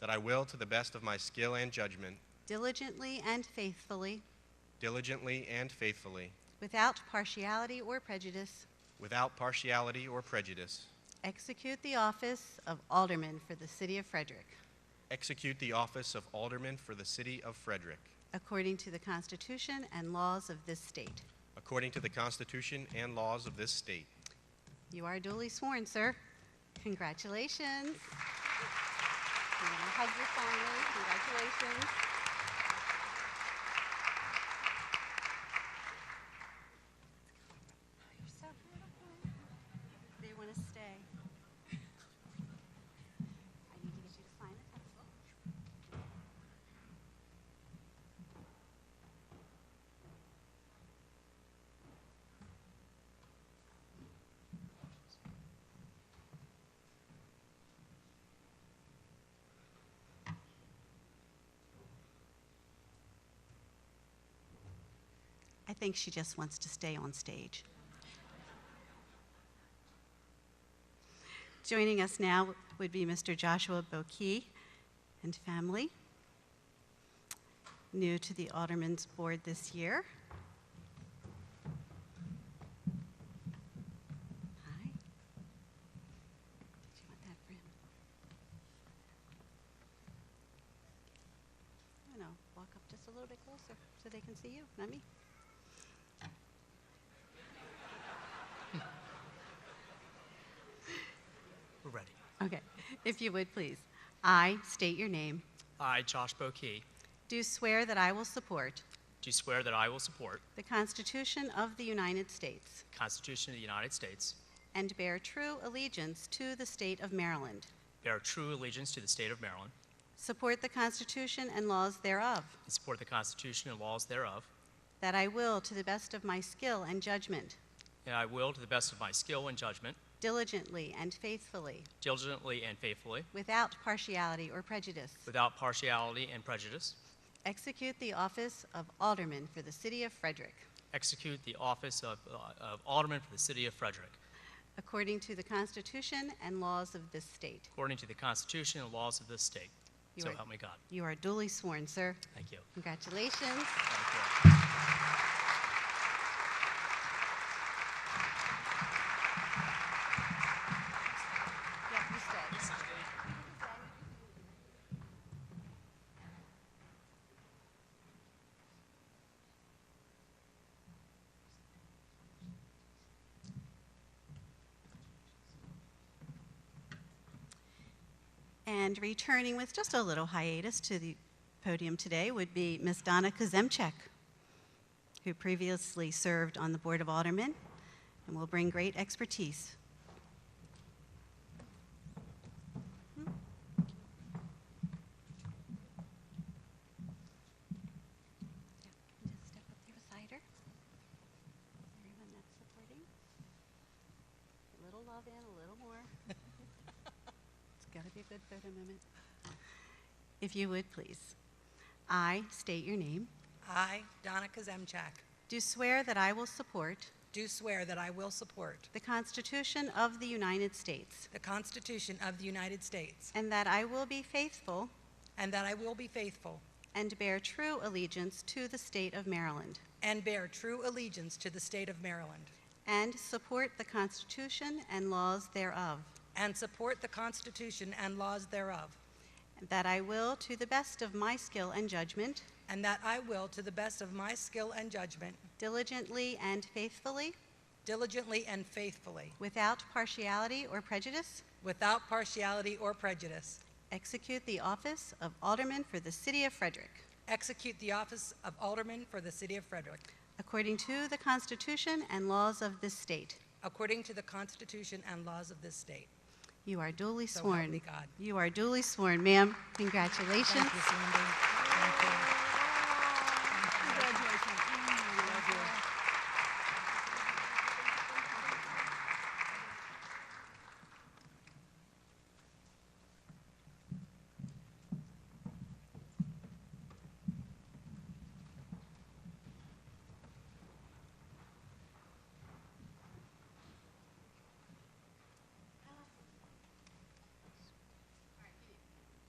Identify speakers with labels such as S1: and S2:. S1: that I will, to the best of my skill and judgment,
S2: diligently and faithfully,
S1: diligently and faithfully,
S2: without partiality or prejudice,
S1: without partiality or prejudice,
S2: execute the office of Alderman for the City of Frederick,
S1: execute the office of Alderman for the City of Frederick,
S2: according to the Constitution and laws of this state.
S1: according to the Constitution and laws of this state.
S2: You are duly sworn, sir. Congratulations. You want to hug your family. Congratulations. You're so beautiful. They want to stay. I need to get you to sign a couple. I think she just wants to stay on stage. Joining us now would be Mr. Joshua Bokey and family, new to the Alderman's Board this year. Hi. Did you want that for him? No, no, walk up just a little bit closer so they can see you, not me.
S3: We're ready.
S2: Okay, if you would, please. I state your name.
S3: I, Josh Bokey,
S2: Do swear that I will support
S3: do swear that I will support
S2: the Constitution of the United States
S3: the Constitution of the United States,
S2: and bear true allegiance to the state of Maryland,
S3: bear true allegiance to the state of Maryland,
S2: support the Constitution and laws thereof,
S3: and support the Constitution and laws thereof,
S2: that I will, to the best of my skill and judgment,
S3: and I will, to the best of my skill and judgment,
S2: diligently and faithfully,
S3: diligently and faithfully,
S2: without partiality or prejudice,
S3: without partiality and prejudice,
S2: execute the office of Alderman for the city of Frederick,
S3: execute the office of uh, of Alderman for the city of Frederick,
S2: according to the Constitution and laws of this state.
S3: according to the Constitution and laws of this state.
S2: You
S3: So
S2: are-
S3: help me God.
S2: You are duly sworn, sir.
S3: Thank you.
S2: Congratulations.
S3: Thank you.
S2: Yeah, you stay. And returning with just a little hiatus to the podium today would be Ms. Donna Kazemchek, who previously served on the Board of Aldermen and will bring great expertise. Just step up there beside her. Everyone that's supporting. A little love in, a little more. It's got to be a good photo moment. If you would, please. I state your name.
S4: I, Donna Kazemchak,
S2: Do swear that I will support
S4: do swear that I will support
S2: the Constitution of the United States
S4: the Constitution of the United States
S2: and that I will be faithful
S4: and that I will be faithful
S2: and bear true allegiance to the state of Maryland
S4: and bear true allegiance to the state of Maryland
S2: and support the Constitution and laws thereof.
S4: and support the Constitution and laws thereof
S2: That I will, to the best of my skill and judgment,
S4: and that I will, to the best of my skill and judgment,
S2: diligently and faithfully,
S4: diligently and faithfully,
S2: without partiality or prejudice,
S4: without partiality or prejudice,
S2: execute the office of Alderman for the City of Frederick,
S4: execute the office of Alderman for the city of Frederick
S2: according to the Constitution and laws of this state.
S4: according to the Constitution and laws of this state.
S2: You are duly
S4: So help
S2: sworn.
S4: me God.
S2: You are duly sworn, ma'am. Congratulations.
S4: Thank you, Sandy.